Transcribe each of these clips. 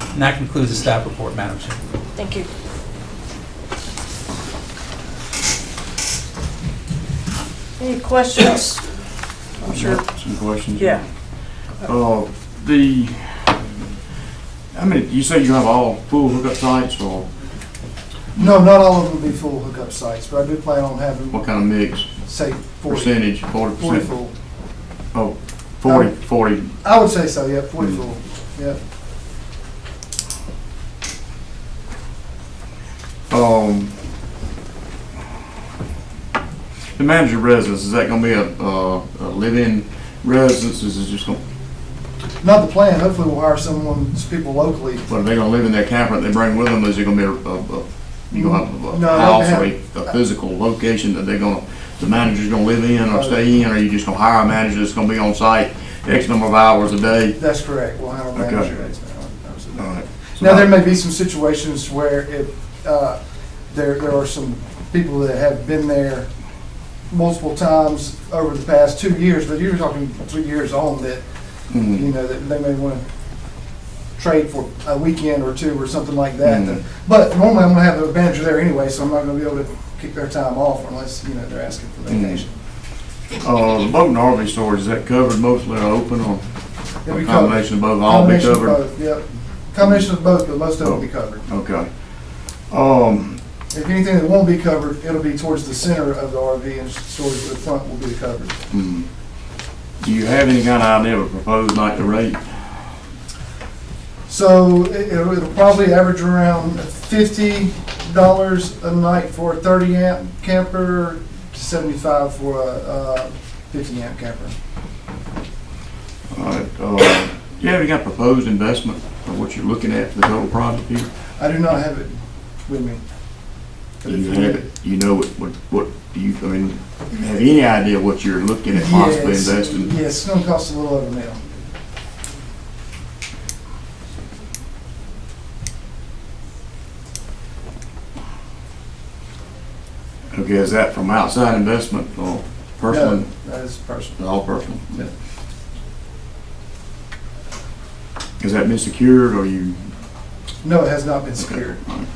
And that concludes the staff report, Madam Chair. Thank you. Any questions? I'm sure, Some questions? yeah. Uh, the, I mean, you say you have all full hookup sites or No, not all of them will be full hookup sites, but I do plan on having, what kind of mix? say, 40, Percentage, forty 40 percent? full. Oh, forty, forty, I would say so, yeah, Mm. 40 full, yeah. um. The manager residence, is that gonna be a, uh, a live-in residence? Is it just gonna, Not the plan, hopefully we'll hire someone, people locally. what, are they gonna live in their camper that they bring with them? Is it gonna be a, a, a- you gonna have a- a No, house or they a, a physical location that they're gonna, the manager's gonna live in or No. stay in? Or you just gonna hire a manager that's gonna be on site X number of hours a day? That's correct, we'll hire a Okay. Uh, manager. That's- that was it. Alright. Now, there may be some situations where if, uh, there, there are some people that have been there multiple times over the past two years, but you're talking two years on that, you Mhm. know, that they may want to trade for a weekend or two or something like that. Mhm. But normally I'm going to have the manager there anyway, so I'm not going to be able to kick their time off unless, you know, they're asking for Mhm. vacation. Uh, the boat and RV storage, is that covered mostly or open or They'll a be covered. combination of both, all be Combination of covered? Oh. both, Yep, combination of both, but most of it will be covered. Okay. Um, If anything that won't be covered, it'll be towards the center of the RV and storage at the front will be covered. hmm. do you have any kind of idea of a proposed nightly rate? So it- it'll it'll probably average around fifty dollars a night for a thirty amp camper, seventy-five for a uh, fifty amp camper. Alright, uh, do you have any kind of proposed investment or what you're looking at for the total project here? I do not have it with me. But Do if you have it, do you know what, what, what, do you, I mean, have any idea what you're looking at possibly Yes, investing? Yes, it's gonna cost a little over a mil. Okay, is that from outside investment or personal, No, That is personal. all personal? Yeah. Has that been secured or you? No, it has not been secured. Alright.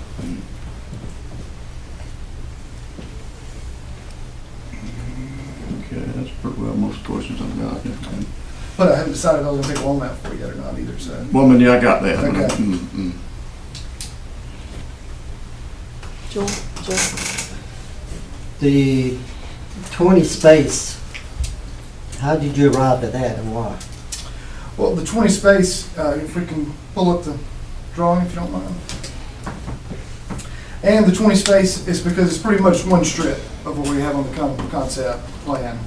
Okay, that's pretty well most questions I've got. But I haven't decided if I was gonna take a loan out for it yet or not either, so. Well, I mean, yeah, I got that. Okay. Mm, mm. Joel, Joel, The 20 space, how did you arrive at that and why? Well, the twenty space, uh, if we can pull up the drawing, if you don't mind. And the twenty space is because it's pretty much one strip of what we have on the con- concept plan.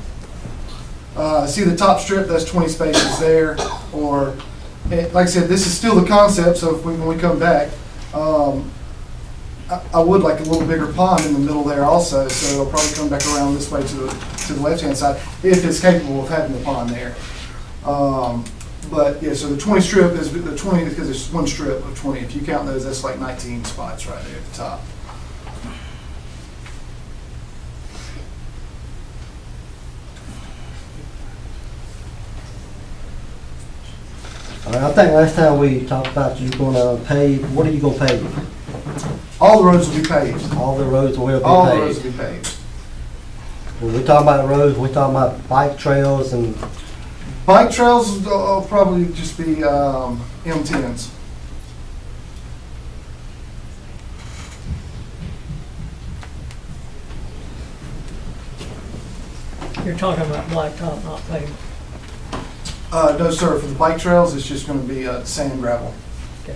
Uh, see the top strip, that's twenty spaces there, or, eh, like I said, this is still the concept, so if we, when we come back, um, I, I would like a little bigger pond in the middle there also, so it'll probably come back around this way to the, to the left-hand side, if it's capable of having the pond there. Um, but yeah, so the twenty strip is the twenty because it's one strip of twenty. If you count those, that's like nineteen spots right there at the top. All right, I think last time we talked about you gonna pave, what are you gonna pave? All the roads will be paved. All the roads will be All the roads will paved. be paved. When we talk about roads, we talking about bike trails and, Bike trails will- will probably just be um, M10s. You're talking about blacktop, not pavement. Uh, no, sir. For the bike trails, it's just going to be uh, sand gravel. but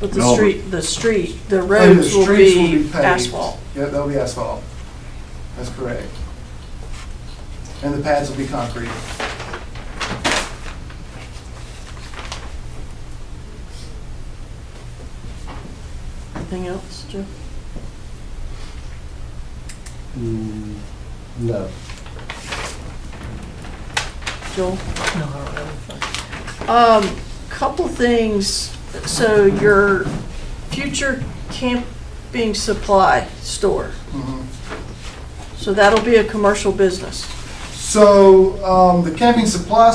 No, but- the street, the street, the And the roads will streets will be paved. asphalt. Yep, that'll be asphalt. That's correct. And the pads will be concrete. Anything else, Joe? mm, no. Joel? No, I don't have anything. Um, couple things, so your future camping supply store, Mhm. so that'll be a commercial business? So um, the camping supply